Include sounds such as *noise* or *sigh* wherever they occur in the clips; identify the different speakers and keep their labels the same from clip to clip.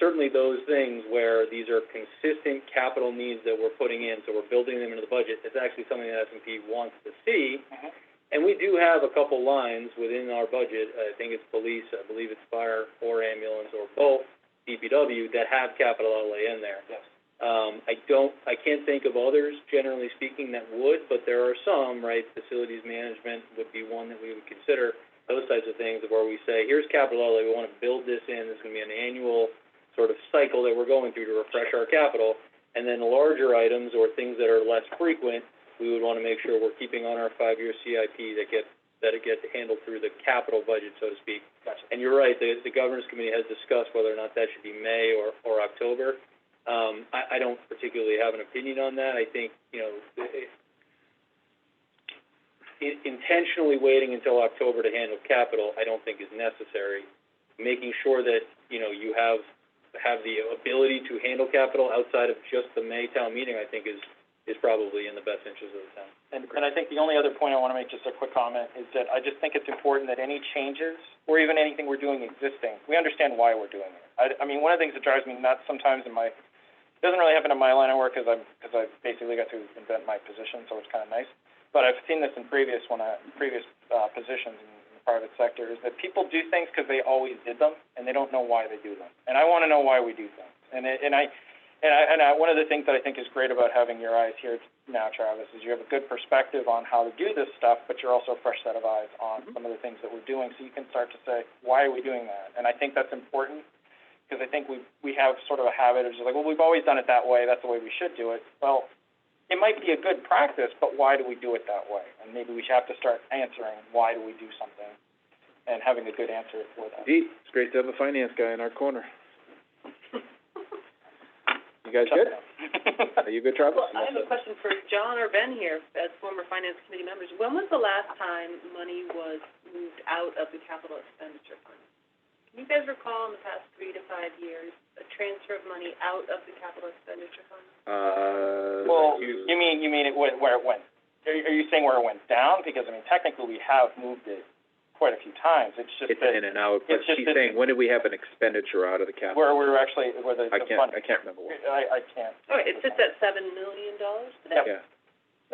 Speaker 1: certainly those things where these are consistent capital needs that we're putting in, so we're building them into the budget. It's actually something that S and P wants to see.
Speaker 2: Mhm.
Speaker 1: And we do have a couple lines within our budget, I think it's police, I believe it's fire or ambulance or both, DPW, that have capital outlay in there.
Speaker 2: Yes.
Speaker 1: Um, I don't, I can't think of others, generally speaking, that would, but there are some, right? Facilities management would be one that we would consider, those types of things where we say, here's capital outlay, we wanna build this in, this is gonna be an annual sort of cycle that we're going through to refresh our capital. And then larger items or things that are less frequent, we would wanna make sure we're keeping on our five-year CIP that get, that it gets handled through the capital budget, so to speak.
Speaker 2: Gotcha.
Speaker 1: And you're right, the, the governance committee has discussed whether or not that should be May or, or October. Um, I, I don't particularly have an opinion on that, I think, you know, it, in- intentionally waiting until October to handle capital, I don't think is necessary. Making sure that, you know, you have, have the ability to handle capital outside of just the May town meeting, I think is, is probably in the best interest of the town.
Speaker 2: And, and I think the only other point I wanna make, just a quick comment, is that I just think it's important that any changes, or even anything we're doing existing, we understand why we're doing it. I, I mean, one of the things that drives me nuts sometimes in my, it doesn't really happen in my line of work, 'cause I'm, 'cause I basically got to invent my position, so it's kinda nice. But I've seen this in previous, when I, previous, uh, positions in the private sector, is that people do things 'cause they always did them, and they don't know why they do them. And I wanna know why we do things. And it, and I, and I, and I, one of the things that I think is great about having your eyes here now, Travis, is you have a good perspective on how to do this stuff, but you're also a fresh set of eyes on some of the things that we're doing, so you can start to say, why are we doing that? And I think that's important, because I think we, we have sort of a habit of just like, well, we've always done it that way, that's the way we should do it. Well, it might be a good practice, but why do we do it that way? And maybe we should have to start answering, why do we do something? And having a good answer for that.
Speaker 3: Indeed, it's great to have a finance guy in our corner. You guys good?
Speaker 1: *laughs*
Speaker 3: Are you good, Travis?
Speaker 4: Well, I have a question for John or Ben here, as former finance committee members. When was the last time money was moved out of the capital expenditure fund? Can you guys recall in the past three to five years, a transfer of money out of the capital expenditure fund?
Speaker 3: Uh.
Speaker 2: Well, you mean, you mean it went, where it went, are, you- are you saying where it went down? Because, I mean, technically, we have moved it quite a few times, it's just
Speaker 3: It's an
Speaker 2: that
Speaker 3: in and out, but
Speaker 2: it's just
Speaker 3: she's
Speaker 2: that-
Speaker 3: saying, when did we have an expenditure out of the capital?
Speaker 2: where we were actually, where the,
Speaker 3: I
Speaker 2: the
Speaker 3: can't,
Speaker 2: funding.
Speaker 3: I can't remember what,
Speaker 2: I, I can't.
Speaker 4: All right, it sits at seven million dollars today?
Speaker 3: yeah.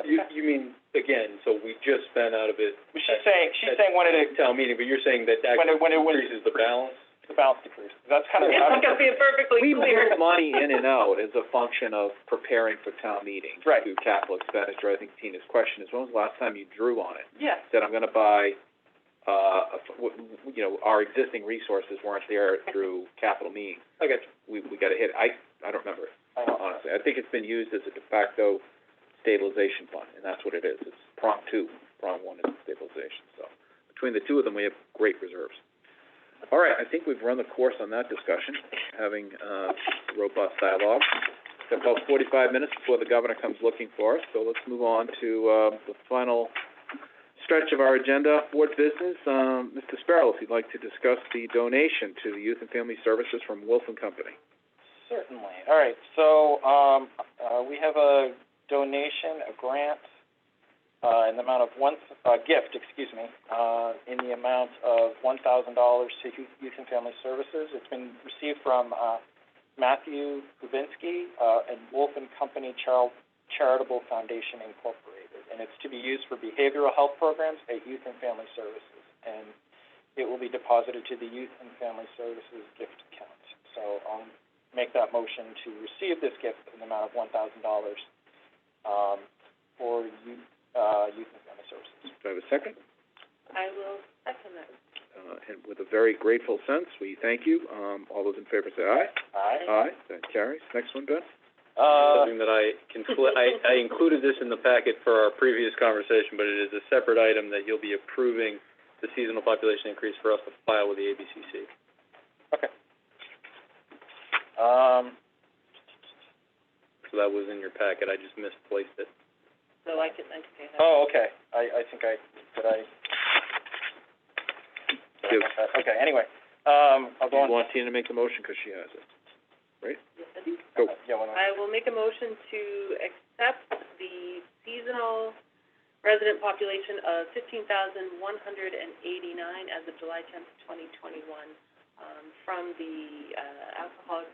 Speaker 1: You, you mean, again, so we just spent out of it
Speaker 2: But She's saying, she's saying when it,
Speaker 1: town meeting, but you're saying that that
Speaker 2: when it, when it was,
Speaker 1: increases the balance?
Speaker 2: the balance decreased, that's kind of.
Speaker 4: It's
Speaker 2: how-
Speaker 4: gonna be perfectly
Speaker 3: We
Speaker 4: clear.
Speaker 3: move money in and out as a function of preparing for town meeting.
Speaker 2: Right.
Speaker 3: To capital expenditure, I think Tina's question is, when was the last time you drew on it?
Speaker 4: Yes,
Speaker 3: Said, I'm gonna buy, uh, a f- w- w- you know, our existing resources weren't there through capital means.
Speaker 1: I got you.
Speaker 3: We, we gotta hit, I, I don't remember,
Speaker 2: I don't-
Speaker 3: Uh, honestly. I think it's been used as a de facto stabilization fund, and that's what it is. It's prong two, prong one is stabilization, so. Between the two of them, we have great reserves. All right, I think we've run the course on that discussion, having, uh, robust dialogue. Got about forty-five minutes before the governor comes looking for us, so let's move on to, uh, the final stretch of our agenda, board business. Um, Mr. Sparrow, if you'd like to discuss the donation to the Youth and Family Services from Wilson Company.
Speaker 2: Certainly. All right, so, um, uh, we have a donation, a grant, uh, in the amount of one, uh, gift, excuse me, uh, in the amount of one thousand dollars to Youth- Youth and Family Services. It's been received from, uh, Matthew Kubinski, uh, and Wolf and Company Char- Charitable Foundation Incorporated. And it's to be used for behavioral health programs at Youth and Family Services. And it will be deposited to the Youth and Family Services gift account. So um, I'll make that motion to receive this gift in the amount of one thousand dollars, um, for youth, uh, youth and family services.
Speaker 3: Do I have a second?
Speaker 4: I will second that.
Speaker 3: Uh, and with a very grateful sense, we thank you. Um, all those in favor say aye.
Speaker 2: Aye.
Speaker 3: Aye, that carries. Next one, Ben?
Speaker 2: Uh,
Speaker 1: Something that I confl- I, I included this in the packet for our previous conversation, but it is a separate item that you'll be approving the seasonal population increase for us to file with the ABCC.
Speaker 2: um,
Speaker 1: So that was in your packet, I just misplaced it.
Speaker 4: So
Speaker 1: Uh,
Speaker 4: I can, I can pay that.
Speaker 2: oh, okay, I, I think I, did I?
Speaker 3: Do-
Speaker 2: uh, Okay, anyway, um, I'll
Speaker 3: Do
Speaker 2: go
Speaker 3: you
Speaker 2: on.
Speaker 3: want Tina to make the motion, because she has it?
Speaker 4: Yes, I do.
Speaker 3: Go.
Speaker 2: Yeah, why not?
Speaker 4: I will make a motion to accept the seasonal resident population of fifteen thousand one hundred and eighty-nine as of July tenth, twenty twenty-one, um, from the, uh, Alcoholics